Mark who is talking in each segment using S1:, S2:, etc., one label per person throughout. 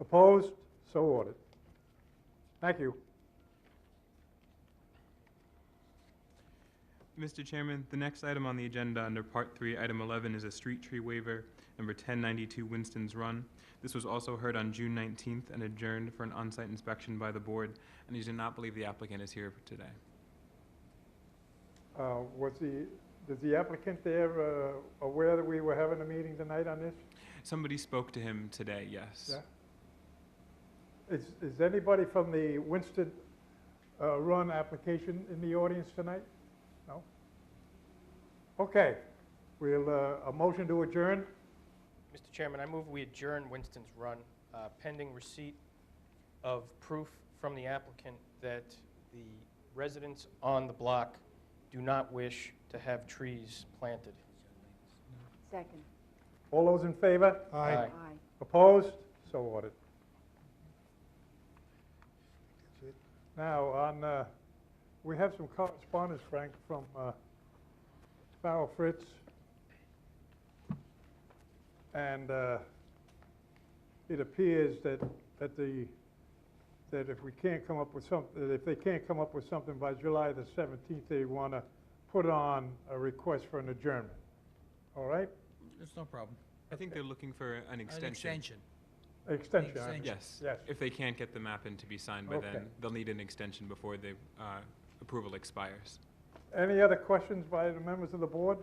S1: Opposed? So ordered. Thank you.
S2: Mr. Chairman, the next item on the agenda under Part 3, Item 11, is a street tree waiver, number 1092 Winston's Run. This was also heard on June 19th and adjourned for an on-site inspection by the board, and I do not believe the applicant is here today.
S1: Uh, Was the, is the applicant there uh, aware that we were having a meeting tonight on this?
S2: Somebody spoke to him today, yes.
S1: Yeah. Is, is anybody from the Winston uh, Run application in the audience tonight? No? Okay, we'll, uh, a motion to adjourn.
S3: Mr. Chairman, I move we adjourn Winston's Run uh, pending receipt of proof from the applicant that the residents on the block do not wish to have trees planted.
S4: Second.
S1: All those in favor?
S3: Aye.
S4: Aye.
S1: Opposed? So ordered. Now, on, uh, we have some correspondence, Frank, from uh, Farrell Fritz. And uh, it appears that, that the, that if we can't come up with some, that if they can't come up with something by July the 17th, they want to put on a request for an adjournment. All right?
S5: It's no problem.
S2: I think they're looking for an
S5: An
S2: extension.
S5: extension.
S1: Extension. I-
S5: Extension.
S2: Yes.
S1: Yes.
S2: If they can't get the map in to be signed by
S1: Okay.
S2: then, they'll need an extension before the uh, approval expires.
S1: Any other questions by the members of the board?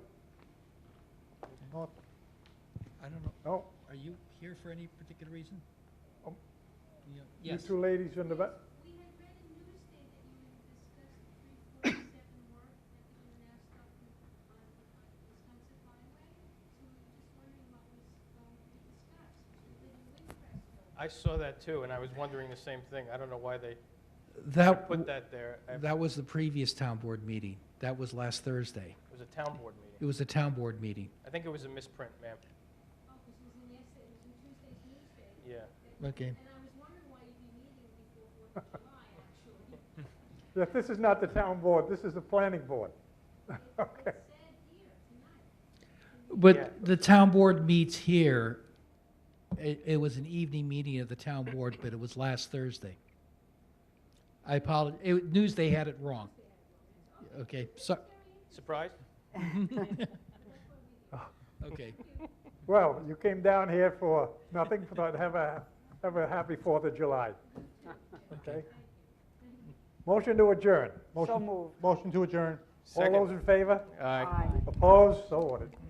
S1: Not-
S5: I don't know,
S1: No?
S5: are you here for any particular reason?
S3: Oh.
S1: Um,
S5: Yeah,
S1: You
S5: Yes,
S1: two ladies in the back?
S6: We had read in Newsday that you had discussed three forty-seven work that was an asphalt on on uh, Wisconsin Highway. So we were just wondering what was going to be discussed, including Windcrest Road.
S3: I saw that too, and I was wondering the same thing. I don't know why they
S7: That,
S3: put that there. I- It
S7: that was the previous town board meeting. That was last Thursday.
S3: was a town board
S7: It
S3: meeting.
S7: was a town board meeting.
S3: I think it was a misprint, ma'am.
S6: Oh, because it was in yesterday, it was in Tuesday's Newsday.
S3: Yeah.
S7: Okay.
S6: And I was wondering why you'd be meeting before Fourth of July, actually.
S1: Yes, this is not the town board, this is the planning board. Okay.
S6: It said here tonight.
S3: Yeah.
S7: But the town board meets here. It, it was an evening meeting of the town board, but it was last Thursday. I apologize, it, Newsday had it wrong. Okay, so,
S3: Surprised?
S7: okay.
S1: Well, you came down here for nothing, but have a, have a happy Fourth of July. Okay? Motion to adjourn.
S4: So
S1: Motion.
S4: moved.
S1: Motion to adjourn. All
S3: Second.
S1: those in favor?
S3: Aye.
S4: Aye.
S1: Opposed? So ordered.